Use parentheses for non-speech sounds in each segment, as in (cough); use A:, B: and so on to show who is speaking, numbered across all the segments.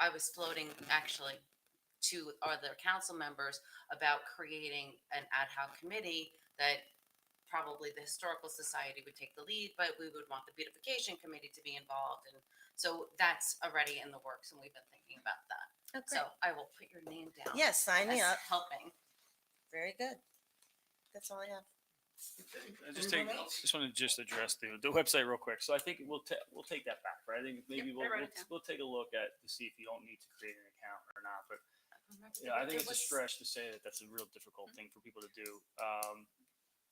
A: I was floating actually to other council members about creating an ad hoc committee that probably the historical society would take the lead, but we would want the beautification committee to be involved. And so that's already in the works and we've been thinking about that.
B: Oh, great.
A: So I will put your name down.
B: Yes, sign me
A: as
B: up.
A: Helping.
B: Very good. That's all I have.
C: I Just take, just want to just address the, the website real quick. So I think we'll, ta- we'll take that back, right? I think maybe
A: Yep, I
C: we'll,
A: wrote
C: we'll,
A: it down.
C: we'll take a look at, to see if you don't need to create an account or not, but yeah, I think it's a stretch to say that that's a real difficult thing for people to do. Um,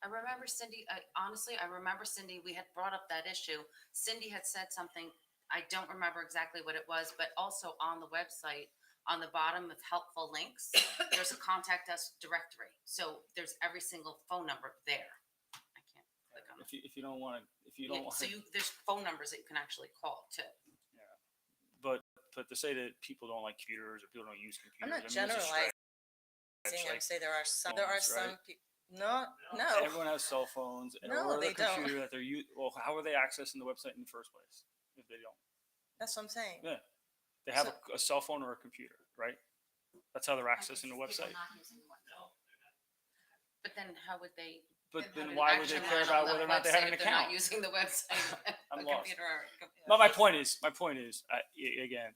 A: I remember Cindy, I, honestly, I remember Cindy, we had brought up that issue. Cindy had said something, I don't remember exactly what it was, but also on the website, on the bottom of helpful links, there's a contact us directory. So there's every single phone number there. I can't click on
C: if you, if you don't want to, if you
A: it.
C: don't want
A: So
C: to,
A: you, there's phone numbers that you can actually call too.
C: but, but to say that people don't like computers or people don't use
B: I'm not
C: computers. I mean, it's a stretch.
B: generalizing. I
C: like-
B: would say there are some, there are
C: phones, right?
B: some people, no, no.
C: Everyone has cell phones and
B: No,
C: or
B: they
C: the
B: don't.
C: computer that they're u Well, how are they accessing the website in the first place if they don't?
B: That's what I'm saying.
C: Yeah. They have a, a cell phone or a computer, right? That's how they're accessing the website.
A: But then how would they?
C: But
A: how
C: then
A: do
C: why would they
A: action
C: care
A: on
C: about
A: the
C: whether or not they have
A: website
C: an
A: if they're not
C: account?
A: Using the website.
C: (laughs) I'm
A: a
C: lost.
A: computer or a com-
C: No, my point is, my point is, I, i- again,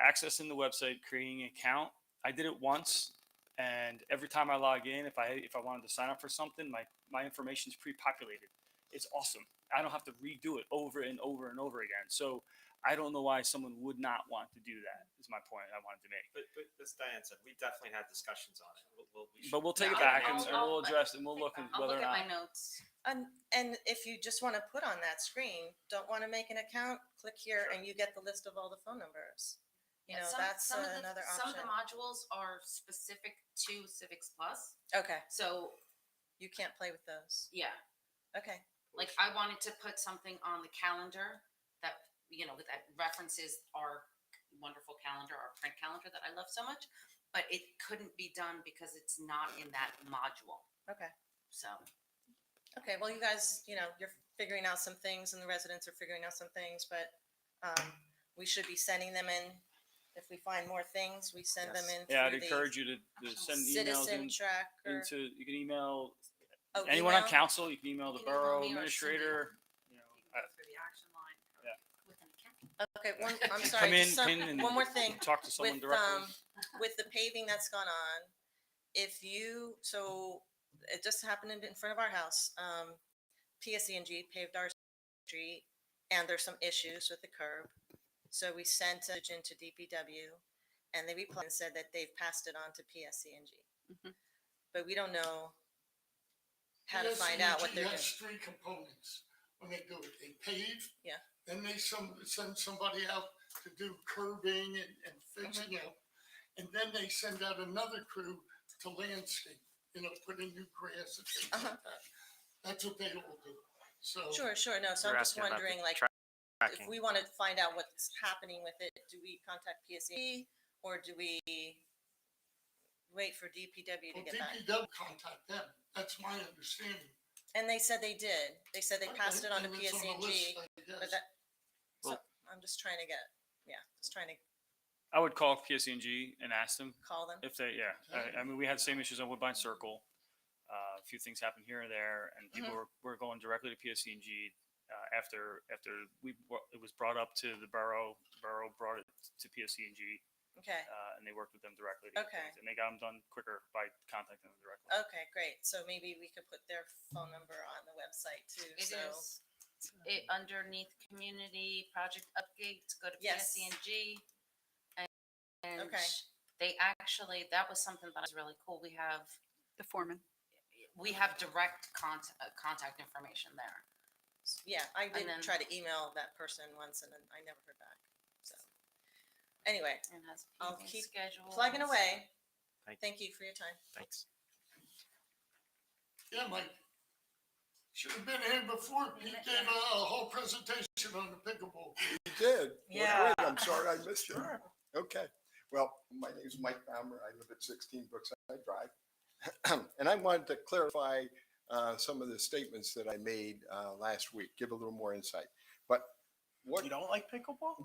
C: accessing the website, creating an account. I did it once, and every time I log in, if I if I wanted to sign up for something, my my information is pre-populated. It's awesome. I don't have to redo it over and over and over again. So I don't know why someone would not want to do that. Is my point I wanted to make.
D: But, but as Diane said, we definitely had discussions on it. We'll- we'll- we
C: But
D: should-
C: we'll take
A: No,
C: it back
A: I'll-
C: and, and
A: I'll-
C: we'll address and we'll look at
A: I'll
C: whether
A: look
C: or
A: at my
C: not.
A: notes.
B: And, and if you just want to put on that screen, don't want to make an account, click here
D: Sure.
B: and you get the list of all the phone numbers. You
A: Yeah,
B: know,
A: some-
B: that's
A: some of the-
B: another
A: Some of the
B: option.
A: modules are specific to Civics Plus,
B: Okay,
A: so,
B: you can't play with those.
A: yeah,
B: Okay,
A: like, I wanted to put something on the calendar that, you know, that references our wonderful calendar, our print calendar that I love so much, but it couldn't be done because it's not in that module,
B: okay,
A: so.
B: okay. Well, you guys, you know, you're figuring out some things and the residents are figuring out some things, but, um, we should be sending them in. If we find more things, we send them in.
C: Yeah, I'd
B: through the uh,
C: encourage you to, to send emails
B: Citizen
C: in,
B: tracker.
C: into. You can email
B: Oh,
C: anyone on
B: email?
C: council. You can email the
A: You can email
C: borough
A: me or Cindy.
C: administrator. You know,
A: you can
C: I-
A: go Through the action line. with
C: Yeah.
A: an account.
B: Okay, one, I'm
C: (laughs) Come
B: sorry,
C: in,
B: just some-
C: pin, and
B: one more thing.
C: Talk to someone
B: With, um,
C: directly.
B: with the paving that's gone on, if you, so it just happened in in front of our house. Um, PSE&G paved our street and there's some issues with the curb. So we sent it into DPW and they replied and said that they've passed it on to PSE&G.
A: Mhm.
B: But we don't know how to find out what they're
E: PSEG
B: doing.
E: has Three components when they do it. They pave.
B: Yeah.
E: Then they some, send somebody out to do curbing and, and fixing
B: Mm-hmm.
E: up. And then they send out another crew to landscape, you know, put in new grass and things
B: Uh-huh.
E: like that. That's what they all do. So.
B: Sure, sure, no, so
F: You're
B: I'm just
F: asking about the
B: wondering, like, if
F: tracking.
B: we want to find out what's happening with it, do we contact PSE or do we wait for DPW to
E: Well,
B: get back?
E: DPW contact them. That's my understanding.
B: And they said they did. They said they passed it on to
E: And it's the
B: PSE&G,
E: list, I guess.
B: but that, so
C: Well-
B: I'm just trying to get, yeah, just trying to
C: I would call PSCNG and ask them
B: call them.
C: if they. Yeah, I, I mean, we had the same issues on Woodbine Circle. Uh, a few things happened here and there, and people were, were going directly to PSCNG uh, after after we brought- it was brought up to the borough. The borough brought it to PSCNG.
B: Okay,
C: uh, and they worked with them directly. to get
B: Okay. Oh,
C: things, And they got them done quicker by contacting them directly.
B: okay, great. So maybe we could put their phone number on the website too,
A: It
B: so.
A: is, it underneath community project updates, go to
B: Yes.
A: PSCNG. and- And
B: Okay.
A: they actually, that was something that was really cool. We have,
G: The foreman.
A: we have direct contact, contact information there.
B: Yeah, I did
A: then-
B: try to email that person once and then I never heard back, so. Anyway,
A: And has
B: I'll
A: paving
B: keep
A: schedules.
B: plugging away.
F: Thank-
B: Thank you for your time.
F: Thanks.
E: Yeah, Mike. Should have been here before. He gave a a whole presentation on the pickleball.
H: You did? Well,
B: Yeah.
H: great. I'm sorry I missed it. Okay. Well, my name is Mike Baumer. I live at 16 Brookside Drive. (clears throat) And I wanted to clarify uh, some of the statements that I made uh, last week, give a little more insight. But what
D: (laughs)
F: don't like pickleball?